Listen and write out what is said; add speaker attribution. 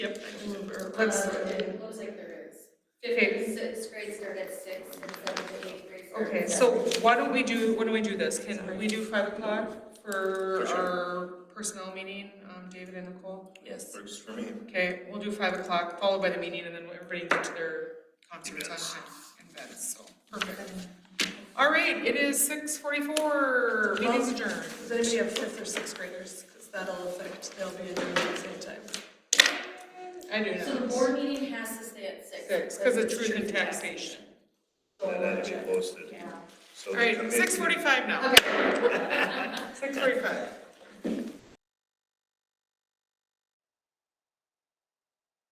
Speaker 1: Yep, I remember.
Speaker 2: Uh,
Speaker 1: I'm sorry.
Speaker 2: it looks like there is.
Speaker 1: Okay.
Speaker 2: Fifth, sixth grade start at six, and seventh and eighth grade start
Speaker 1: Okay,
Speaker 2: at
Speaker 1: so
Speaker 2: seven.
Speaker 1: why don't we do, why don't we do this? Can we do five o'clock for our personnel meeting, um, David and Nicole? Yes.
Speaker 3: Works for me.
Speaker 1: Okay, we'll do five o'clock, followed by the meeting, and then everybody get to their concerts on time and events, so, perfect. All right, it is six forty-four, meeting's adjourned.
Speaker 4: Does anybody have fifth or sixth graders? Because that'll affect, they'll be in there at the same time.
Speaker 1: I do
Speaker 2: So the
Speaker 1: know.
Speaker 2: board meeting has to stay at six.
Speaker 1: Six, because of truth in taxation.
Speaker 3: That had to be posted.
Speaker 2: Yeah.
Speaker 3: So
Speaker 1: All
Speaker 3: the
Speaker 1: right,
Speaker 3: committee-
Speaker 1: six forty-five now.
Speaker 2: Okay.
Speaker 1: Six forty-five.